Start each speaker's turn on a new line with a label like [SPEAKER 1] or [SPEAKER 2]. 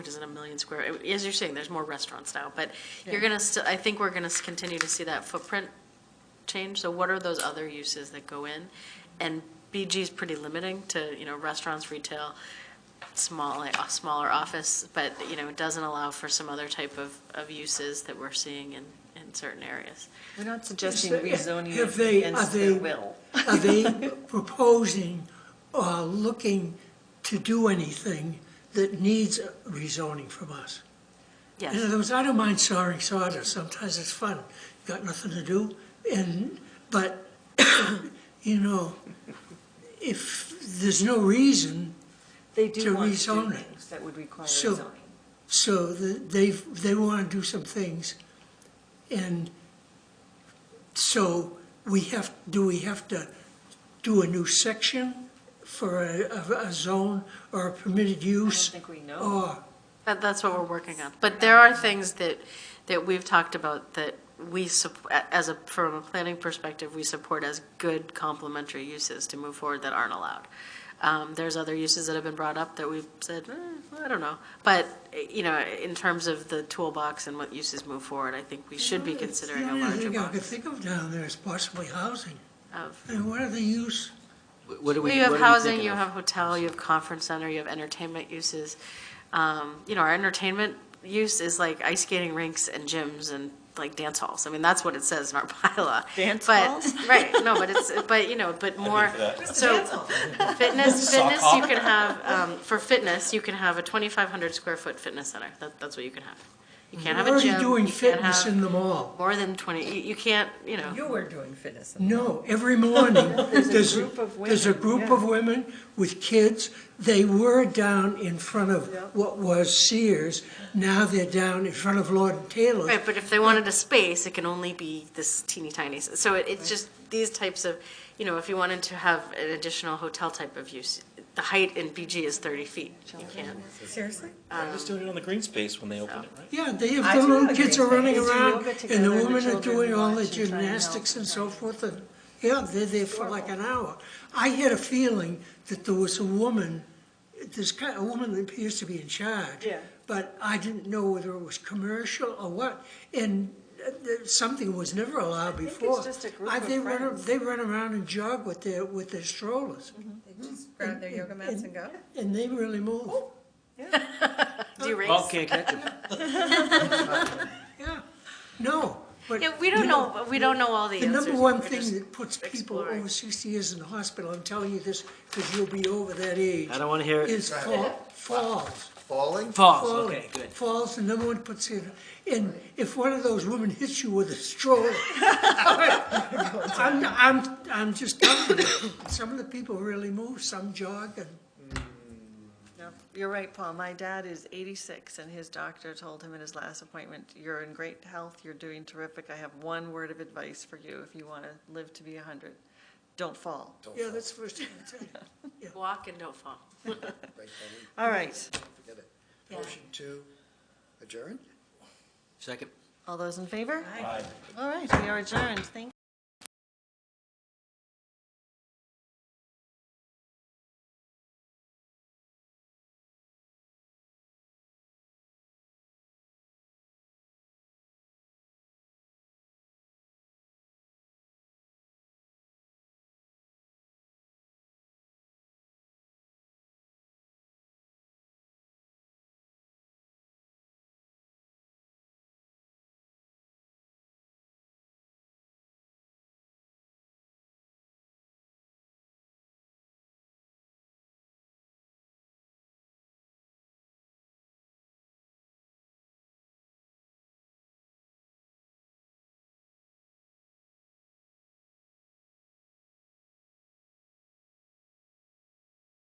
[SPEAKER 1] which isn't a million square, as you're saying, there's more restaurants now, but you're gonna still, I think we're gonna s- continue to see that footprint change, so what are those other uses that go in? And BG is pretty limiting to, you know, restaurants, retail, small, like, a smaller office, but, you know, it doesn't allow for some other type of, of uses that we're seeing in, in certain areas.
[SPEAKER 2] We're not suggesting
[SPEAKER 3] If they-
[SPEAKER 2] rezoning
[SPEAKER 3] if they-
[SPEAKER 2] it against
[SPEAKER 3] are
[SPEAKER 2] their
[SPEAKER 3] they-
[SPEAKER 2] will.
[SPEAKER 3] Are they proposing or looking to do anything that needs rezoning from us? In
[SPEAKER 1] Yes,
[SPEAKER 3] other words, I don't mind sawing sawdust, sometimes it's fun, got nothing to do, and, but, you know, if there's no reason,
[SPEAKER 2] They
[SPEAKER 3] to
[SPEAKER 2] do want to do
[SPEAKER 3] rezone it.
[SPEAKER 2] things that would require
[SPEAKER 3] So-
[SPEAKER 2] zoning.
[SPEAKER 3] so the- they, they want to do some things, and so we have, do we have to do a new section for a, a a zone or a permitted
[SPEAKER 2] I don't
[SPEAKER 3] use?
[SPEAKER 2] think we know.
[SPEAKER 3] Or,
[SPEAKER 1] that, that's what we're working on, but there are things that, that we've talked about that we, sup- a- as a, from a planning perspective, we support as good complementary uses to move forward that aren't allowed. Um, there's other uses that have been brought up that we've said, eh, I don't know, but, eh, you know, in terms of the toolbox and what uses move forward, I think we should be considering a larger
[SPEAKER 3] The only thing I could
[SPEAKER 1] box
[SPEAKER 3] think of down there is possibly housing,
[SPEAKER 1] of.
[SPEAKER 3] and what are the use?
[SPEAKER 4] What do
[SPEAKER 1] Well,
[SPEAKER 4] we, what
[SPEAKER 1] you
[SPEAKER 4] are
[SPEAKER 1] have
[SPEAKER 4] we
[SPEAKER 1] housing,
[SPEAKER 4] thinking
[SPEAKER 1] you
[SPEAKER 4] of?
[SPEAKER 1] have hotel, you have conference center, you have entertainment uses. Um, You know, our entertainment use is like ice skating rinks and gyms and like dance halls. I mean, that's what it says in our bylaw.
[SPEAKER 2] Dance
[SPEAKER 1] But-
[SPEAKER 2] halls?
[SPEAKER 1] Right, no, but it's, but, you know, but more, so fitness, fitness, you can have, um, for fitness, you can have a 2,500 square foot fitness center. That, that's what you can have. You can't have a gym.
[SPEAKER 3] We're already doing
[SPEAKER 1] you can't
[SPEAKER 3] fitness
[SPEAKER 1] have
[SPEAKER 3] in the mall.
[SPEAKER 1] More than 20, you, you can't, you know.
[SPEAKER 2] You were doing fitness.
[SPEAKER 3] No, every morning, there's,
[SPEAKER 2] group of
[SPEAKER 3] there's a
[SPEAKER 2] women,
[SPEAKER 3] group
[SPEAKER 2] yeah.
[SPEAKER 3] of women with kids. They were down in front of what was Sears. Now they're down in front of Lord and Taylor.
[SPEAKER 1] Right, but if they wanted a space, it can only be this teeny tiny, so it, it's just these types of, you know, if you wanted to have an additional hotel type of use, the height in BG is thirty feet, you can't.
[SPEAKER 2] Seriously?
[SPEAKER 5] They're just doing it on the green space when they open it, right?
[SPEAKER 3] Yeah, they have
[SPEAKER 2] I
[SPEAKER 3] the
[SPEAKER 2] do
[SPEAKER 3] little
[SPEAKER 2] agree
[SPEAKER 3] kids are
[SPEAKER 2] with that.
[SPEAKER 3] running
[SPEAKER 2] They do
[SPEAKER 3] around,
[SPEAKER 2] yoga
[SPEAKER 3] and
[SPEAKER 2] together,
[SPEAKER 3] the
[SPEAKER 2] the
[SPEAKER 3] women are
[SPEAKER 2] children
[SPEAKER 3] doing all
[SPEAKER 2] watch
[SPEAKER 3] the
[SPEAKER 2] and try and help
[SPEAKER 3] gymnastics and
[SPEAKER 2] and
[SPEAKER 3] so forth, and, yeah, they're there for like an hour. I had a feeling that there was a woman, this kind, a woman that appears to be in charge.
[SPEAKER 2] Yeah.
[SPEAKER 3] But I didn't know whether it was commercial or what, and uh, th- something was never allowed
[SPEAKER 2] think it's
[SPEAKER 3] before.
[SPEAKER 2] just a group
[SPEAKER 3] I-
[SPEAKER 2] of
[SPEAKER 3] they run a-
[SPEAKER 2] friends.
[SPEAKER 3] They run around and jog with their, with their strollers,
[SPEAKER 6] Just grab their yoga mats and go.
[SPEAKER 2] Mm-hmm.
[SPEAKER 3] and they really move,
[SPEAKER 1] Do you raise?
[SPEAKER 4] Okay, catch it.
[SPEAKER 3] yeah. No, but.
[SPEAKER 1] Yeah, we don't
[SPEAKER 3] you
[SPEAKER 1] know, we don't know all the
[SPEAKER 3] The
[SPEAKER 1] answers.
[SPEAKER 3] number one
[SPEAKER 1] We're just-
[SPEAKER 3] thing that puts people
[SPEAKER 1] exploring.
[SPEAKER 3] over sixty years in the hospital, I'm telling you this, because you'll be over that age.
[SPEAKER 4] I don't wanna hear it.
[SPEAKER 3] Is fa- falls.
[SPEAKER 7] Falling?
[SPEAKER 4] Falls,
[SPEAKER 3] falling.
[SPEAKER 4] okay, good.
[SPEAKER 3] Falls, the number one puts in, and if one of those women hits you with a stroller, I'm, I'm, I'm just telling you, some of the people really move, some jog, and
[SPEAKER 6] You're right, Paul. My dad is 86, and his doctor told him in his last appointment, "You're in great health. You're doing terrific. I have one word of advice for you if you want to live to be 100. Don't fall."
[SPEAKER 3] yeah, that's the first thing I tell you.
[SPEAKER 1] Walk and don't fall.
[SPEAKER 6] All right.
[SPEAKER 7] Forget it. Motion to adjourn?
[SPEAKER 4] Second.
[SPEAKER 6] All those in favor? All right, we are adjourned. Thank you.